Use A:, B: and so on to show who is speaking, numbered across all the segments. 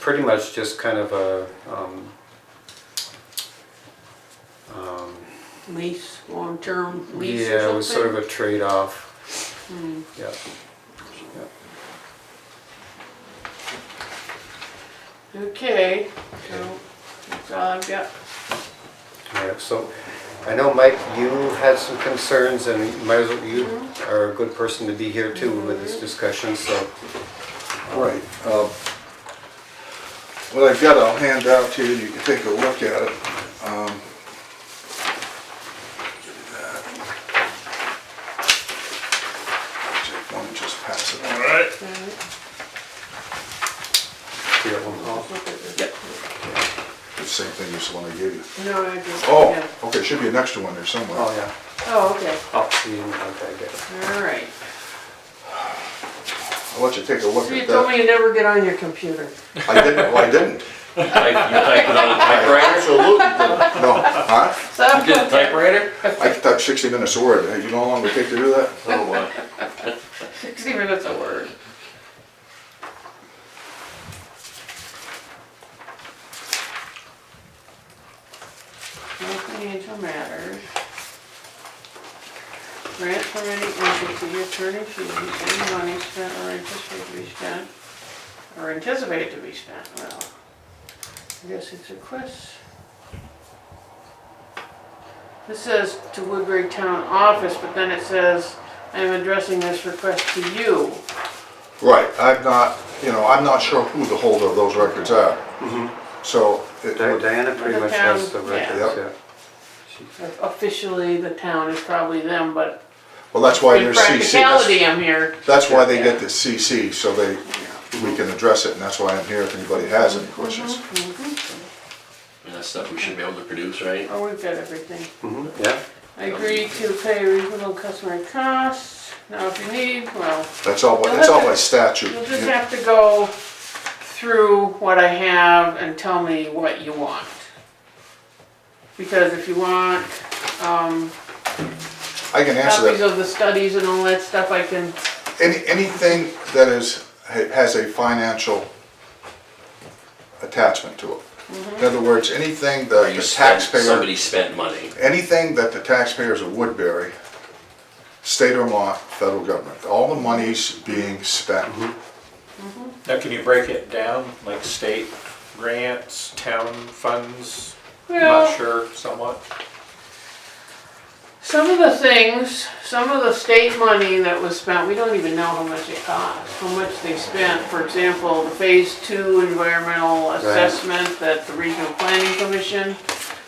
A: pretty much just kind of a, um, um,
B: lease, long-term lease
A: yeah, it
B: or
A: was sort of
B: something? Hmm.
A: a trade-off. Yeah,
B: Okay, so that's all I've got.
A: yeah, so I know, Mike, you had some concerns and you might as well, you
B: Mm-hmm.
A: are a good person to be here too with this discussion, so.
C: Right. uh, What I've got, I'll hand out to you, and you can take a look at it. Um, give me that. Take one and just pass it on.
D: Alright.
A: you got one
B: Oh,
A: call?
C: It's the Same thing as the one I gave you.
B: No, I just, yeah.
C: Oh, okay, should be an extra one there somewhere.
A: Oh, yeah,
B: Oh, okay,
A: oh, you didn't, okay, I get it.
B: all right.
C: I'll let you take a look
B: So you
C: at
B: told me
C: that.
B: you never get on your computer.
C: I didn't, well, I didn't.
D: Type, you type it on a typewriter?
C: Absolutely didn't. No, huh?
B: So,
D: You did a typewriter?
C: I can type sixty minutes a word. You know how long it would take to do that?
D: Oh, wow.
B: sixty minutes a word. No financial matters. Grant from any entity, attorney fees, any money spent or anticipated to be spent, or anticipated to be spent, well, I guess it's a request. This says to Woodbury Town Office, but then it says, I am addressing this request to you.
C: Right, I'm not, you know, I'm not sure who the holder of those records are.
B: Mm-hmm.
C: So, it
A: Di-
C: would-
A: Diana pretty
B: The
A: much has the
B: town,
A: records,
C: yeah.
A: yeah.
B: Officially, the town is probably them, but
C: well, that's why
B: in
C: there's CC.
B: practicality,
C: That's-
B: I'm here.
C: That's why they
B: Yeah. Mm-hmm.
C: get the CC, so they, we can address it, and that's why I'm here if anybody has any questions.
D: And that's stuff we should be able to produce, right?
B: Oh, we've got everything.
A: Mhm, Yeah,
B: I agree to pay reasonable customer costs. Now, if you need, well,
C: That's all, by- that's all by statute.
B: you'll just have to go through what I have and tell me what you want. Because if you want, um,
C: I can answer
B: copies
C: that.
B: of the studies and all that stuff, I can,
C: Any, anything that is, ha- has a financial attachment to it.
B: Mm-hmm.
C: In other words, anything that
D: You
C: the
D: spent,
C: taxpayer
D: somebody spent money.
C: anything that the taxpayers of Woodbury, state of Vermont, federal government, all the monies being spent.
E: Now, can you break it down, like state grants, town funds? I'm
B: well,
E: Not sure, somewhat.
B: Some of the things, some of the state money that was spent, we don't even know how much it cost, how much they spent. For example, the phase two environmental assessment that the regional planning commission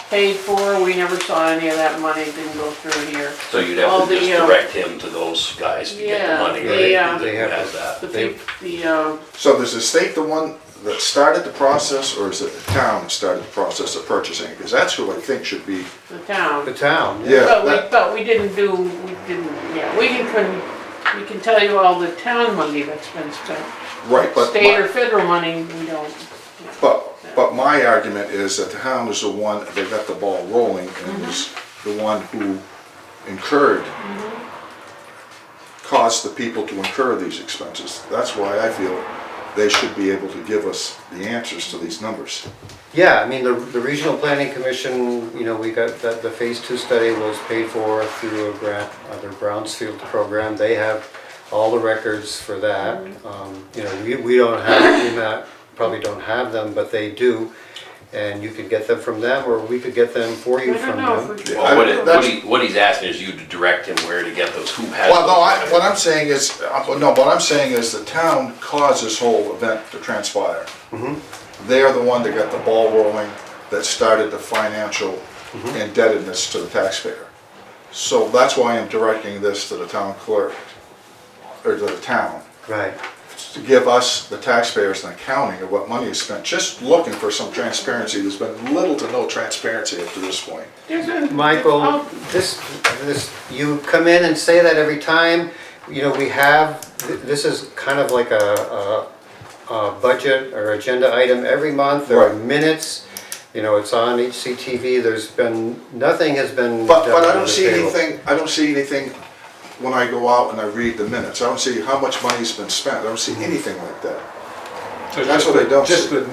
B: paid for, we never saw any of that money, It didn't go through here.
D: So you'd
B: All
D: have to
B: the,
D: just
B: um,
D: direct him to those guys to get
B: Yeah,
D: the money,
B: the,
D: right?
B: uh,
D: Who
A: They have
D: has
A: to-
D: that?
B: The,
A: They-
B: peop- the, uh,
C: So does the state the one that started the process, or is it the town that started the process of purchasing? Because that's who I think should be,
B: the town.
A: the town, yeah.
C: Yeah,
B: But we,
C: that-
B: but we didn't do, we didn't, yeah, we can, couldn't- we can tell you all the town money that's been spent.
C: right, but,
B: State or
C: my-
B: federal money, we don't.
C: but, but my argument is that the town is the one that got the ball rolling and is the one who incurred, caused the people to incur these expenses. That's why I feel they should be able to give us the answers to these numbers.
A: Yeah, I mean, the, the Regional Planning Commission, you know, we got, that, the phase two study was paid for through a grant, uh, their Brownsfield program, they have all the records for that.
B: Mm-hmm.
A: Um, You know, we, we don't have, we not, probably don't have them, but they do, and you could get them from them, or we could get them for
B: I
A: you
B: don't
A: from
B: know if we
A: them.
B: could.
D: Well, what it- what
C: That's-
D: he, what he's asking is you to direct him where to get those, who has.
C: Well, no, I,
D: those.
C: what I'm saying is, uh, no, what I'm saying is the town caused this whole event to transpire. They are the one that got the ball rolling, that started the financial indebtedness to the taxpayer. So that's why I'm directing this to the town clerk, or to the town,
A: Right,
C: to give us, the taxpayers, an accounting of what money is spent, just looking for some transparency. There's been little to no transparency up to this point.
B: There's a-
A: Michael,
B: Oh,
A: this, this, you come in and say that every time, you know, we have, th- this is kind of like a, a, a budget or agenda item every month, there are
C: Right.
A: minutes, you know, it's on HCTV, there's been, nothing has been
C: But, but
A: done
C: I
A: on
C: don't
A: the
C: see
A: table.
C: anything, I don't see anything when I go out and I read the minutes. I don't see how much money's been spent. I don't see anything like that.
E: So it's
C: That's
E: just
C: what I
E: the-
C: don't
E: Just
C: see.
E: the